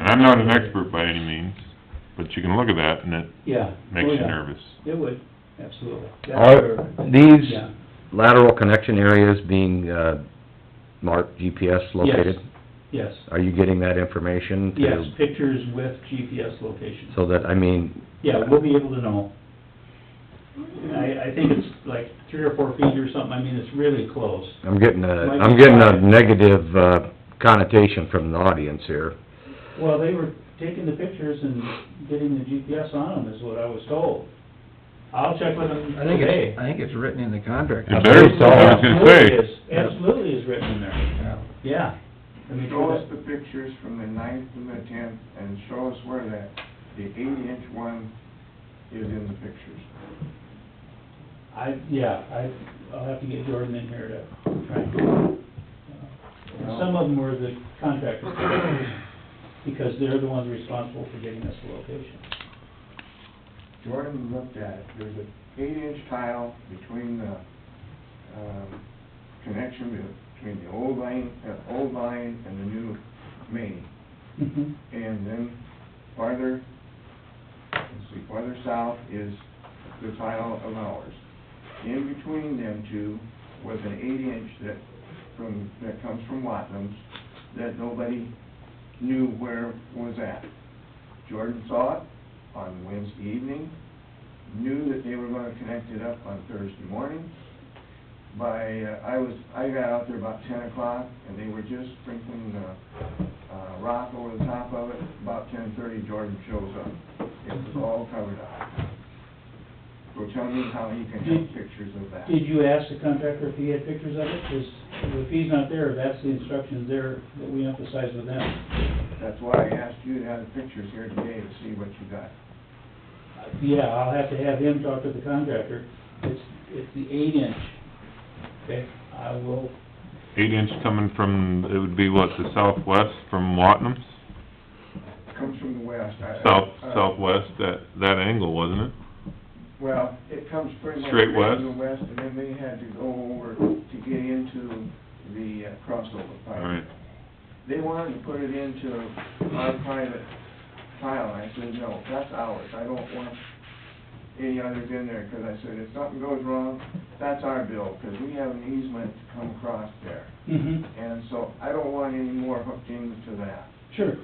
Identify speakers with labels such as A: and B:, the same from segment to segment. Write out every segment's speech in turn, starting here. A: I'm not an expert by any means, but you can look at that and it
B: Yeah.
A: makes
B: Oh,
A: you
B: yeah.
A: nervous.
B: It would, absolutely. That's
C: Are
B: where-
C: these
B: Yeah.
C: lateral connection areas being, uh, marked GPS located?
B: Yes,
C: Are you getting that information to?
B: yes, pictures with GPS location.
C: So that, I mean,
B: Yeah, we'll be able to know. And I, I think it's like three or four feet or something, I mean, it's really close.
C: I'm getting a,
B: Might
C: I'm
B: be
C: getting a
B: five.
C: negative uh, connotation from the audience here.
B: Well, they were taking the pictures and getting the GPS on them is what I was told. I'll check with them
D: I think
B: today.
D: it's, I think it's written in the contract.
A: It better, I was gonna
B: Absolutely
A: say,
B: is, absolutely is written in there,
D: Yeah.
B: yeah. I mean,
E: Show us the pictures from the ninth and the tenth, and show us where that, the eighty-inch one is in the pictures.
B: I, yeah, I, I'll have to get Jordan in here to try and, uh, some of them were the contractors, because they're the ones responsible for getting us the location.
E: Jordan looked at it, there's an eight-inch tile between the, um, connection be- between the old line, uh, old line and the new main.
B: Mhm.
E: And then farther, let's see, farther south is the tile of ours. In between them two was an eight inch that from, that comes from Watnums that nobody knew where was at. Jordan saw it on Wednesday evening, knew that they were gonna connect it up on Thursday morning. By, uh, I was, I got out there about ten o'clock and they were just sprinkling the uh, rock over the top of it, about ten thirty, Jordan shows up. It was all covered up. So tell me how you can have pictures of that.
B: Did you ask the contractor if he had pictures of it? Because if he's not there, that's the instructions there that we emphasize with them.
E: That's why I asked you to have the pictures here today to see what you got.
B: Yeah, I'll have to have him talk to the contractor. It's, it's the eight inch. Okay, I will,
A: eight inch coming from, it would be what, the southwest from Watten's?
E: Comes from the west. I- I-
A: South,
E: uh,
A: southwest, that, that angle, wasn't it?
E: Well, it comes pretty much
A: Straight
E: from the west, and then they had to go over to get into the uh, crossover
A: All
E: pipe.
A: right.
E: They wanted to put it into our private tile, I said, no, that's ours, I don't want any others in there, 'cause I said, if something goes wrong, that's our bill, 'cause we have an easement to come across there.
B: mhm,
E: And so I don't want any more hooked into that.
B: sure.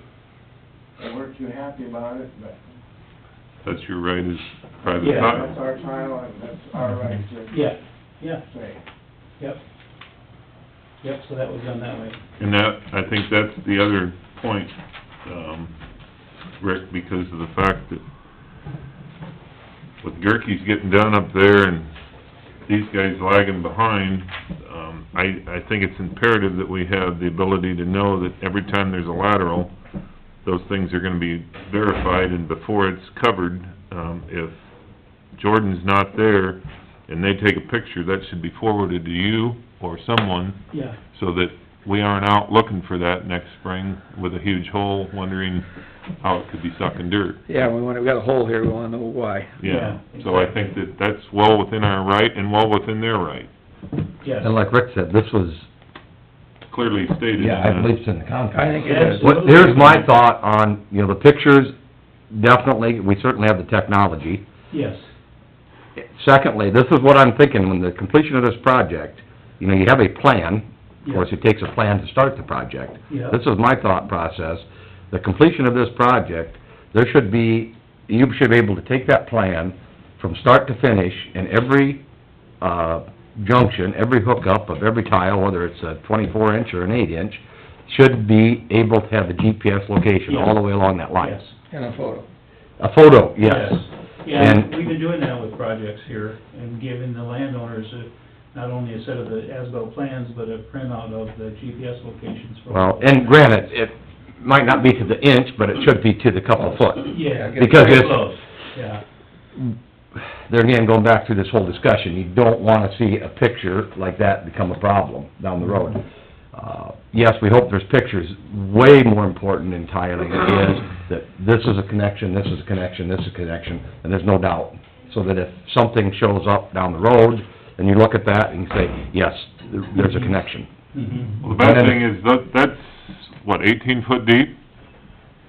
E: They weren't too happy about it, but,
A: That's your right as private
B: Yeah,
E: yeah, that's
A: tile.
E: our tile, and that's our right to
B: Yeah, yeah,
E: say.
B: yep. Yep, so that was done that way.
A: And that, I think that's the other point, um, Rick, because of the fact that with Gerke's getting done up there and these guys lagging behind, um, I, I think it's imperative that we have the ability to know that every time there's a lateral, those things are gonna be verified and before it's covered, um, if Jordan's not there and they take a picture, that should be forwarded to you or someone
B: Yeah,
A: so that we aren't out looking for that next spring with a huge hole, wondering how it could be sucking dirt.
D: Yeah, we want, we got a hole here, we wanna know why.
A: Yeah,
B: Yeah,
A: so I think that that's well within our right and well within their right,
B: yes.
C: And like Rick said, this was,
A: clearly stated.
C: yeah, I believe it's in the
D: I
C: contract.
D: think it is.
C: What, here's my thought on, you know, the pictures, definitely, we certainly have the technology.
B: Yes,
C: Secondly, this is what I'm thinking, when the completion of this project, you know, you have a plan, of course, it takes a plan to start the project.
B: Yeah.
C: This is my thought process, the completion of this project, there should be, you should be able to take that plan from start to finish, and every, uh, junction, every hookup of every tile, whether it's a twenty-four inch or an eight inch, should be able to have a GPS location all the way along that line.
B: yes.
D: And a photo.
C: A photo, yes.
B: Yeah,
C: And-
B: we've been doing that with projects here and giving the landowners a- not only a set of the as-built plans, but a printout of the GPS locations for...
C: Well, and granted, it might not be to the inch, but it should be to the couple foot.
B: Yeah.
C: Because
B: Very
C: it's-
B: close, Yeah,
C: There again, going back through this whole discussion, you don't wanna see a picture like that become a problem down the road. Uh, Yes, we hope there's pictures, way more important entirely is that this is a connection, this is a connection, this is a connection, and there's no doubt. So that if something shows up down the road, and you look at that and you say, yes, there- there's a connection.
B: mhm,
A: Well, the bad thing is that, that's, what, eighteen foot deep?